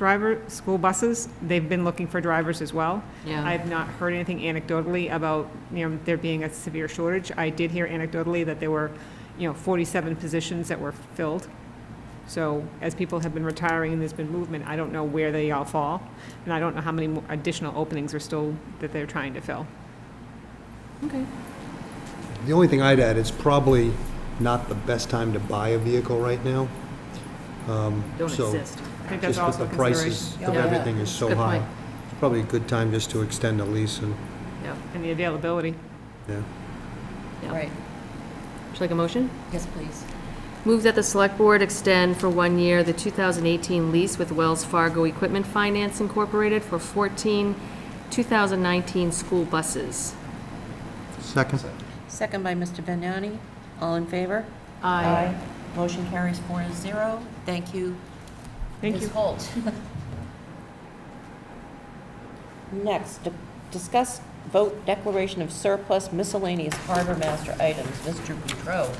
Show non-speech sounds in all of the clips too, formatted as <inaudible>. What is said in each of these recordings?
driver, school buses, they've been looking for drivers as well. Yeah. I've not heard anything anecdotally about, you know, there being a severe shortage. I did hear anecdotally that there were, you know, 47 positions that were filled. So as people have been retiring and there's been movement, I don't know where they all fall, and I don't know how many more additional openings are still, that they're trying to fill. Okay. The only thing I'd add, it's probably not the best time to buy a vehicle right now. Don't So- exist. I think that's Just also with a the consideration. prices of Yeah. everything is so Good high. point. It's probably a good time just to extend a lease and, Yeah, And the availability. yeah. yeah. Right, Would you like a motion? yes, please. Move that the Select Board extend for one year the 2018 lease with Wells Fargo Equipment Finance Incorporated for 14 2019 school buses. Second? Second by Mr. Vignani, all in favor? Aye. Motion carries four to zero. Thank you, Thank Ms. you. Holt. <laughs> Next, di- discuss vote declaration of surplus miscellaneous harbor master items. Mr. Boudreau.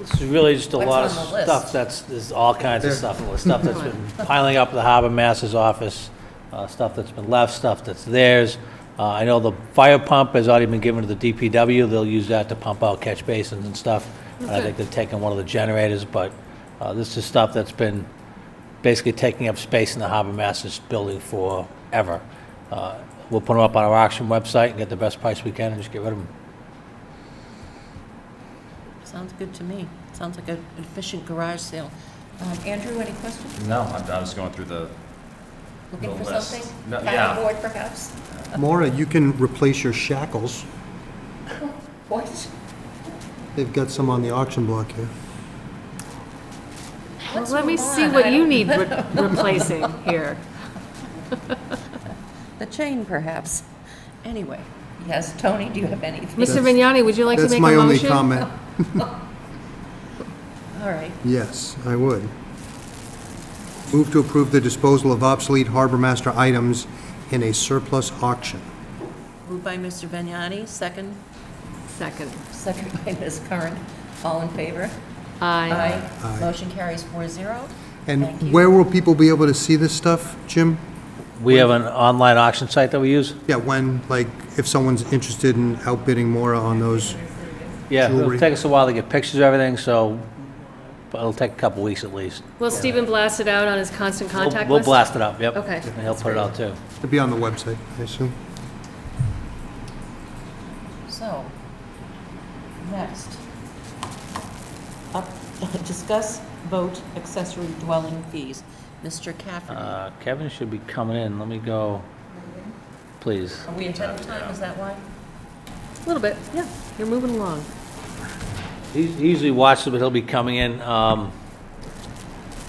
It's really just a What's lot of on the list? stuff that's, there's all kinds of stuff, and stuff that's <laughs> been piling up at the harbor master's office, uh, stuff that's been left, stuff that's theirs. Uh, I know the fire pump has already been given to the DPW, they'll use that to pump out catch basins and stuff. And I think they've taken one of the generators, but uh, this is stuff that's been basically taking up space in the harbor master's building forever. Uh, We'll put them up on our auction website and get the best price we can and just get rid of them. Sounds good to me. Sounds like an efficient garage sale. Um, Andrew, any questions? No, I I was going through the, Looking The for list. something? No, Kind of yeah. bored, perhaps? Maura, you can replace your shackles. What? They've got some on the auction block here. Well, What's let me going see on? I what you don't- need re- replacing here. The chain, perhaps. Anyway, yes, Tony, do you have anything? Mr. That's- Vignani, would you like to That's make a my only motion? <laughs> comment. All right. Yes, I would. Move to approve the disposal of obsolete harbor master items in a surplus auction. Moved by Mr. Vignani, second, Second. second by Ms. Curran. All in favor? Aye. Aye. Motion carries four zero. Thank And you. where will people be able to see this stuff, Jim? We have an online auction site that we use? Yeah, when, like, if someone's interested in outbidding Maura on those, Yeah, it'll jewelry. take us a while to get pictures of everything, so but it'll take a couple weeks at least. Well, Stephen blasted out on his constant We'll- contact list? We'll blast it up, yep. Okay. And he'll put it out too. it'd be on the website, I assume. So, next. Up, <laughs> discuss vote accessory dwelling fees. Mr. Cafferty, are Uh, Kevin should be coming in, let me go, please. we ahead of time, is that why? A little bit, yeah. You're moving along. He he usually watches, but he'll be coming in. Um,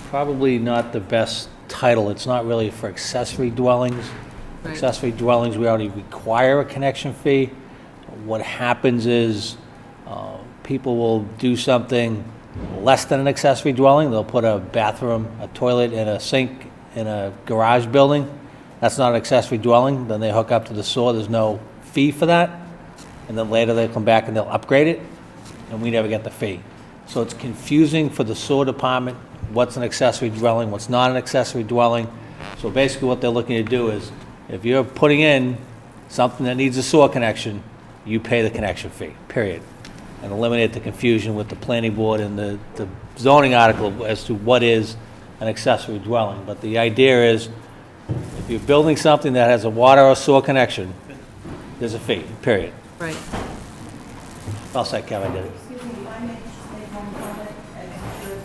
Probably not the best title, it's not really for accessory dwellings. Right. Accessory dwellings, we already require a connection fee. What happens is, uh, people will do something less than an accessory dwelling, they'll put a bathroom, a toilet, and a sink in a garage building. That's not an accessory dwelling, then they hook up to the sewer, there's no fee for that and then later they'll come back and they'll upgrade it, and we never get the fee. So it's confusing for the sewer department, what's an accessory dwelling, what's not an accessory dwelling. So basically what they're looking to do is, if you're putting in something that needs a sewer connection, you pay the connection fee, period. And eliminate the confusion with the planning board and the, the zoning article as to what is an accessory dwelling. But the idea is, if you're building something that has a water or sewer connection, there's a fee, period. Right. I'll say Kevin did it.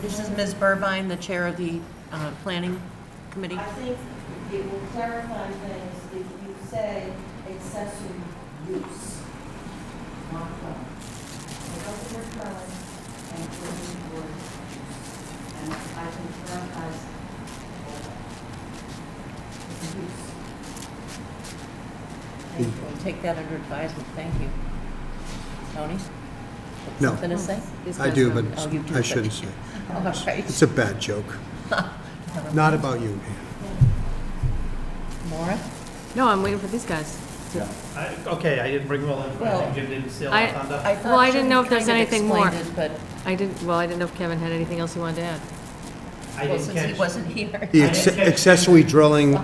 This is Ms. Burbine, the chair of the uh, planning committee. I think it will clarify things if you say accessory use, not dwelling. Take out the word dwelling and put in the word use. And I can clarify all that. It's use. Thank you. We'll take that under advisement, thank you. Tony? No. Something to say? It's I do, but custom. Oh, you do, I but- shouldn't say. All right. It's a bad joke. Not about you, Ann. Maura? No, I'm waiting for these guys. I- Okay, I didn't bring Will in, but I Well, think Jim didn't steal I- our thunder. I thought Well, I didn't Jim know if there's kind of anything more. explained it, But I didn't, well, I didn't know if Kevin had anything else he wanted to add. I well, didn't since he catch- wasn't here. The acce- accessory dwelling